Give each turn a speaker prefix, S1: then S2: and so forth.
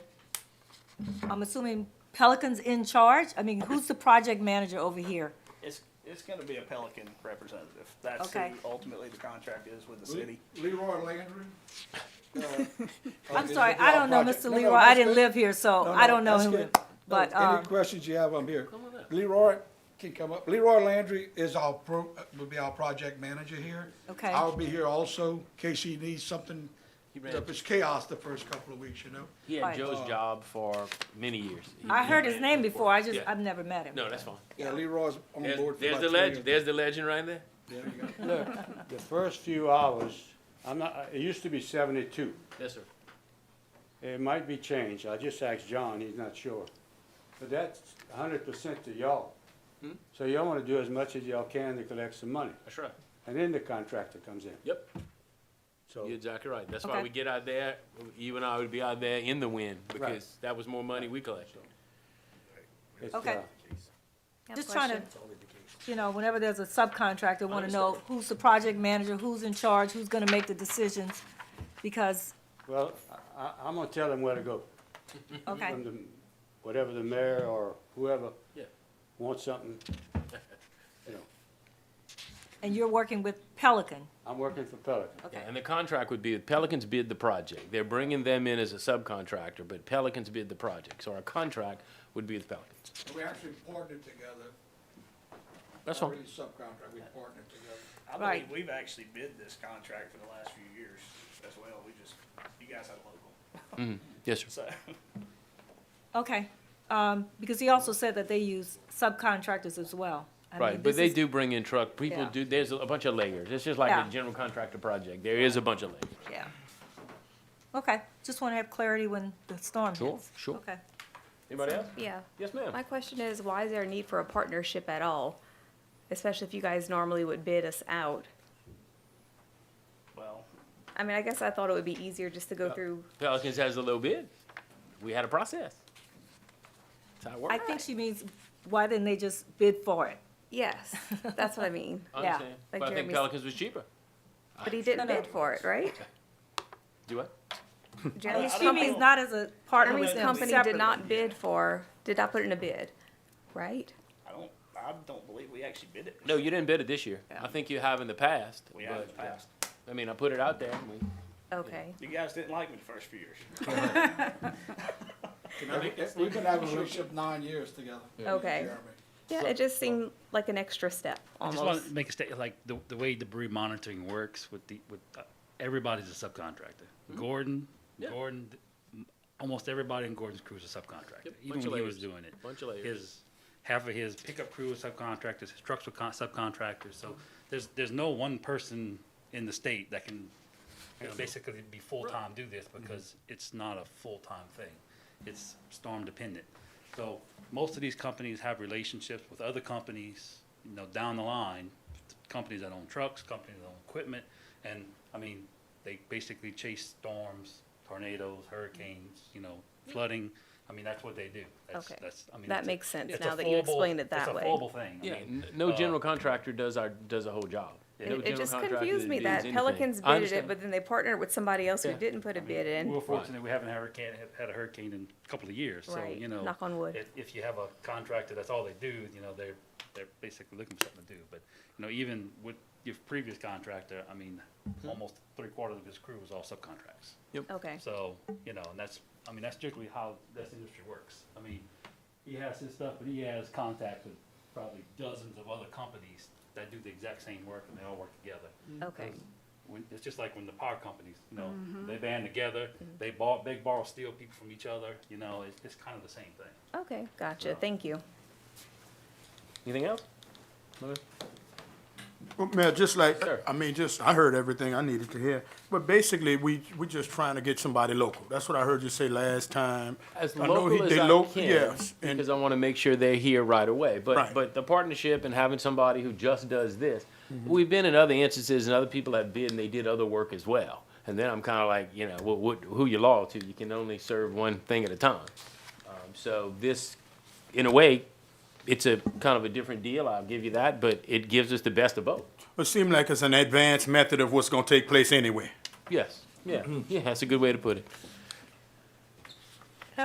S1: I'm assuming Pelican's in charge? I mean, who's the project manager over here?
S2: It's, it's gonna be a Pelican representative. That's
S1: Okay.
S2: who ultimately the contract is with the city.
S3: Leroy Landry. Uh, Oh,
S1: I'm sorry, I don't know Mr. Leroy, I didn't live here, so I don't know him. But, um,
S3: Any questions you have, I'm here. Leroy can come up. Leroy Landry is our pro, will be our project manager here.
S1: Okay.
S3: I'll be here also, in case he needs something. It was chaos the first couple of weeks, you know?
S4: He had
S1: Right.
S4: Joe's job for many years. He-
S1: I heard his name before, I just,
S4: Yeah.
S1: I've never met him.
S4: No, that's fine.
S3: Yeah, Leroy's on
S4: There's,
S3: board for
S4: there's
S3: about
S4: the
S3: three years.
S4: legend. There's the legend right there.
S3: There you go.
S5: Look, the first few hours, I'm not, it used to be seventy-two.
S4: Yes, sir.
S5: It might be changed. I just asked John, he's not sure. But that's hundred percent to y'all. So y'all wanna do as much as y'all can to collect some money,
S4: That's right.
S5: and then the contractor comes in.
S4: Yep.
S5: So,
S4: You're exactly right. That's why
S1: Okay.
S4: we get out there. You and I would be out there in the wind because that was more money we collected.
S5: it's,
S1: Okay.
S5: uh,
S1: Just trying to, you know, whenever there's a subcontractor, wanna know who's the project manager, who's in charge, who's gonna make the decisions? Because,
S5: well, I, I, I'm gonna tell them where to go.
S1: okay,
S5: From the- Whatever the mayor or whoever
S4: Yeah.
S5: wants something, you know,
S1: and you're working with Pelican,
S5: I'm working for Pelican.
S1: okay,
S4: Yeah, and the contract would be Pelicans bid the project. They're bringing them in as a subcontractor, but Pelicans bid the project. So our contract would be with Pelicans.
S3: We actually partnered together.
S4: That's
S3: Not
S4: fine.
S3: really subcontract, we partnered together.
S2: I
S1: Right.
S2: believe we've actually bid this contract for the last few years as well. We just, you guys had a local,
S4: Yes, sir.
S2: so.
S1: okay. Um, because he also said that they use subcontractors as well. I mean, this
S4: Right, but they
S1: is-
S4: do bring in truck, people
S1: Yeah.
S4: do, there's a a bunch of layers, it's just like
S1: Yeah.
S4: a general contractor project, there is a bunch of layers.
S1: Yeah. Okay, just wanna have clarity when the storm hits.
S4: Sure, sure.
S1: Okay.
S4: Anybody else?
S6: Yeah.
S4: Yes, ma'am.
S6: My question is, why is there a need for a partnership at all? Especially if you guys normally would bid us out.
S2: Well,
S6: I mean, I guess I thought it would be easier just to go through.
S4: Pelicans has a low bid, we had a process. That's how it
S1: I
S4: works.
S1: think she means, why didn't they just bid for it?
S6: Yes, that's what I mean.
S4: I
S1: yeah.
S4: understand,
S6: Like
S4: but I think
S6: Jeremy's-
S4: Pelicans was cheaper,
S6: But he didn't
S1: No, no.
S6: bid for it, right?
S4: do what?
S2: I don't
S6: Jeremy's
S1: She
S2: know.
S6: company,
S1: means not as a partner
S6: Jeremy's
S1: with them
S6: company
S1: separately.
S6: did not bid for, did not put in a bid, right?
S2: I don't, I don't believe we actually bid it.
S4: No, you didn't bid it this year,
S1: Yeah.
S4: I think you have in the past.
S2: We have in the
S4: but, yeah.
S2: past.
S4: I mean, I put it out there, and we,
S6: Okay.
S2: You guys didn't like me the first few years.
S3: We've been having a relationship nine years together.
S6: Okay.
S3: Jeremy.
S6: Yeah, it just seemed like an extra step
S7: I just want
S6: almost.
S7: to make a statement, like the, the way debris monitoring works with the, with, uh, everybody's a subcontractor. Gordon,
S4: Mm-hmm. Yeah.
S7: Gordon, m- almost everybody in Gordon's crew is a subcontractor,
S4: Yep, bunch
S7: even
S4: of
S7: when he was
S4: layers,
S7: doing it.
S4: bunch of layers.
S7: His, half of his pickup crew is subcontractors, his trucks were con- subcontractors,
S4: Mm-hmm.
S7: so there's, there's no one person in the state that can, you know, basically be full-time do this, because it's not a full-time thing. It's storm dependent. So most of these companies have relationships with other companies, you know, down the line, companies that own trucks, companies that own equipment, and, I mean, they basically chase storms, tornadoes, hurricanes, you know, flooding, I mean, that's what they do. That's-
S6: Okay.
S7: that's- I mean,
S6: That
S7: it's a-
S6: makes sense
S7: it's a
S6: now that you
S7: fallable-
S6: explained it that way.
S7: It's a fallable thing. I
S4: yeah,
S7: mean,
S4: n- no
S7: uh,
S4: general contractor does our, does a whole job. No
S6: It- It
S4: general
S6: just
S4: contractor
S6: confused
S4: that
S6: me
S4: bids
S6: that
S4: anything.
S6: Pelicans
S4: I
S6: bid it,
S4: understand.
S6: but then they partnered with somebody else who
S4: Yeah.
S6: didn't put a bid in.
S7: We're fortunate, we haven't had a hurricane, had a hurricane in a couple of years, so,
S6: Right.
S7: you know.
S6: Knock on wood.
S7: If, if you have a contractor, that's all they do, you know, they're, they're basically looking for something to do, but, you know, even with your previous contractor, I mean, almost three quarters of his crew was all subcontracts.
S6: Okay.
S7: So, you know, and that's, I mean, that's strictly how this industry works. I mean, he has his stuff, but he has contacts with probably dozens of other companies that do the exact same work and they all work together.
S6: Okay.
S7: When, it's just like when the power companies, you know, they band together, they bought, they borrow steel people from each other, you know, it's, it's kind of the same thing.
S6: Okay, gotcha. Thank you.
S4: Anything else?
S8: Well, Mayor, just like,
S4: Sir.
S8: I mean, just, I heard everything I needed to hear. But basically, we, we just trying to get somebody local. That's what I heard you say last time.
S4: as
S8: I know
S4: local
S8: he-
S4: as
S8: they
S4: I
S8: lo-
S4: can,
S8: Yes,
S4: because
S8: and
S4: I want to make sure they're here right away. But
S8: Right.
S4: but the partnership and having somebody who just does this,
S8: Mm-hmm.
S4: we've been in other instances and other people have bid and they did other work as well. And then I'm kind of like, you know, what, what, who you loyal to? You can only serve one thing at a time. Um, so this, in a way, it's a kind of a different deal. I'll give you that, but it gives us the best of both.
S8: it seemed like it's an advanced method of what's gonna take place anyway. Mm-hmm.
S4: Yes. Yeah. Yeah. That's a good way to put it.